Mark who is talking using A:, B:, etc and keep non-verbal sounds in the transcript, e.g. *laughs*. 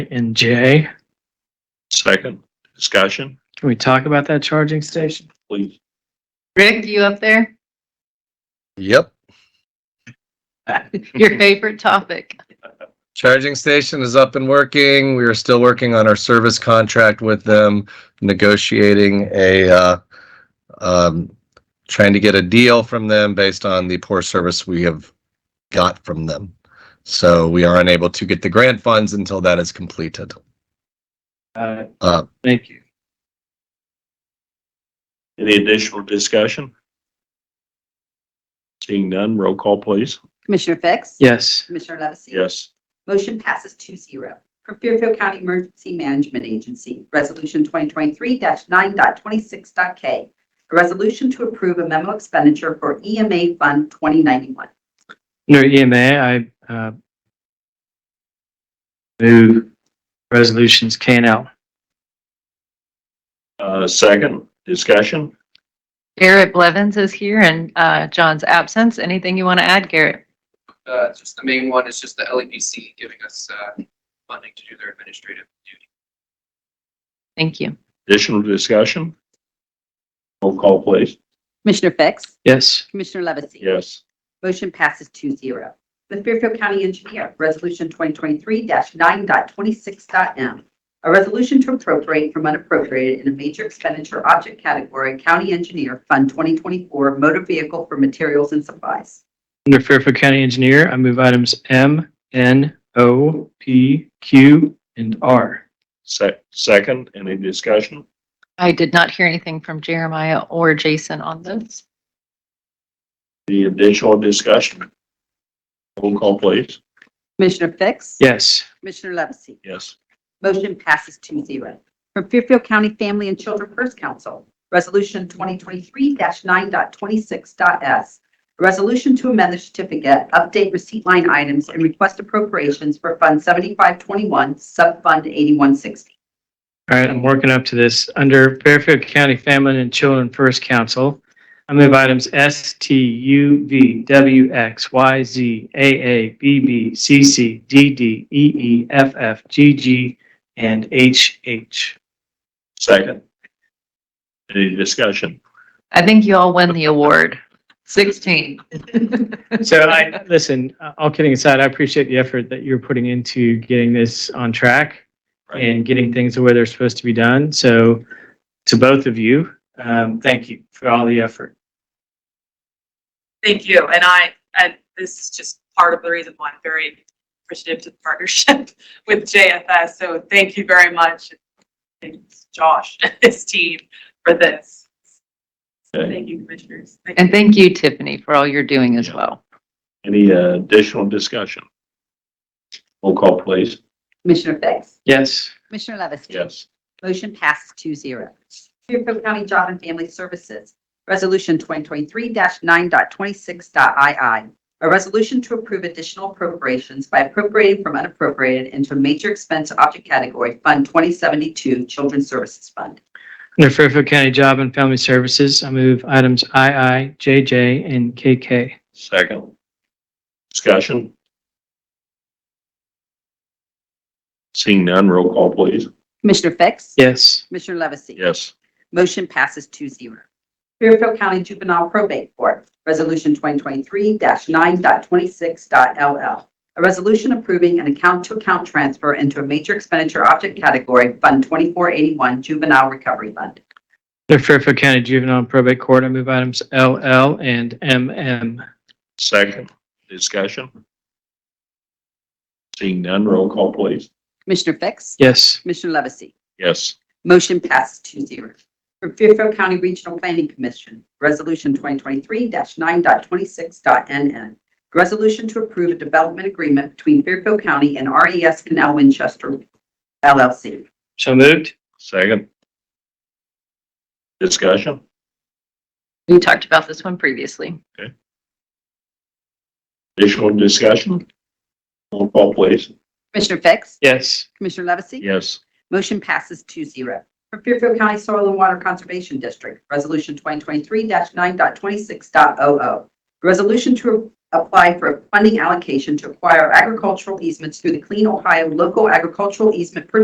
A: and J.
B: Second, discussion,
A: Can we talk about that charging station?
B: please.
C: Rick, you up there?
D: Yep.
C: Your favorite topic.
D: Charging station is up and working. We are still working on our service contract with them, negotiating a, uh, um, trying to get a deal from them based on the poor service we have got from them. So we are unable to get the grant funds until that is completed.
A: Uh,
D: Uh,
A: thank you.
B: Any additional discussion? Seeing none, roll call, please.
E: Commissioner Fix?
A: Yes.
E: Commissioner Levesey?
B: Yes.
E: Motion passes two zero. For Fairfield County Emergency Management Agency, Resolution 2023-9.26.k. A resolution to approve a memo expenditure for EMA Fund 2091.
A: Under EMA, I uh, move resolutions K and L.
B: Uh, second, discussion,
C: Garrett Blevins is here in uh, John's absence. Anything you want to add, Garrett?
F: uh, just the main one is just the LEPC giving us, uh, funding to do their administrative duty.
C: Thank you.
B: additional discussion. Roll call, please.
E: Commissioner Fix?
A: Yes.
E: Commissioner Levesey?
B: Yes.
E: Motion passes two zero. The Fairfield County Engineer, Resolution 2023-9.26.m. A resolution to appropriate from unappropriated in a major expenditure object category, County Engineer Fund 2024 Motor Vehicle for Materials and Supplies.
A: Under Fairfield County Engineer, I move items M, N, O, P, Q, and R.
B: Se- second, any discussion?
C: I did not hear anything from Jeremiah or Jason on those.
B: Any additional discussion? Roll call, please.
E: Commissioner Fix?
A: Yes.
E: Commissioner Levesey?
B: Yes.
E: Motion passes two zero. From Fairfield County Family and Children First Council, Resolution 2023-9.26.s. A resolution to amend the certificate, update receipt line items, and request appropriations for Fund 7521, Subfund 8160.
A: All right, I'm working up to this. Under Fairfield County Family and Children First Council, I move items S, T, U, V, W, X, Y, Z, A, A, B, B, C, C, D, D, E, E, F, F, G, G, and H, H.
B: Second. Any discussion?
C: I think you all win the award. 16.
A: So I, listen, uh, all kidding aside, I appreciate the effort that you're putting into getting this on track
B: Right.
A: and getting things the way they're supposed to be done. So to both of you, um, thank you for all the effort.
G: Thank you. And I, and this is just part of the reason why I'm very appreciative to the partnership *laughs* with JFS. So thank you very much. Thanks, Josh *laughs* and his team for this.
B: Okay.
G: Thank you, commissioners. Thank
C: And
G: you.
C: thank you, Tiffany, for all you're doing as well.
B: Any uh, additional discussion? Roll call, please.
E: Commissioner Fix?
A: Yes.
E: Commissioner Levesey?
B: Yes.
E: Motion passes two zero. Fairfield County Job and Family Services, Resolution 2023-9.26.II. A resolution to approve additional appropriations by appropriating from unappropriated into a major expense object category, Fund 2072, Children's Services Fund.
A: Under Fairfield County Job and Family Services, I move items II, JJ, and KK.
B: Second. Discussion? Seeing none, roll call, please.
E: Commissioner Fix?
A: Yes.
E: Commissioner Levesey?
B: Yes.
E: Motion passes two zero. Fairfield County Juvenile Probate Court, Resolution 2023-9.26.LL. A resolution approving an account-to-account transfer into a major expenditure object category, Fund 2481 Juvenile Recovery Fund.
A: Under Fairfield County Juvenile and Probate Court, I move items LL and MM.
B: Second. Discussion? Seeing none, roll call, please.
E: Commissioner Fix?
A: Yes.
E: Commissioner Levesey?
B: Yes.
E: Motion passes two zero. From Fairfield County Regional Planning Commission, Resolution 2023-9.26.NN. A Resolution to approve a development agreement between Fairfield County and RES Canal Winchester LLC.
A: So moved?
B: Second. Discussion?
C: We talked about this one previously.
B: Additional discussion? Roll call, please.
E: Commissioner Fix?
A: Yes.
E: Commissioner Levesey?
B: Yes.
E: Motion passes two zero. For Fairfield County Soil and Water Conservation District, Resolution 2023-9.26.00. Resolution to apply for a funding allocation to acquire agricultural easements through the Clean Ohio Local Agricultural Easement Purchase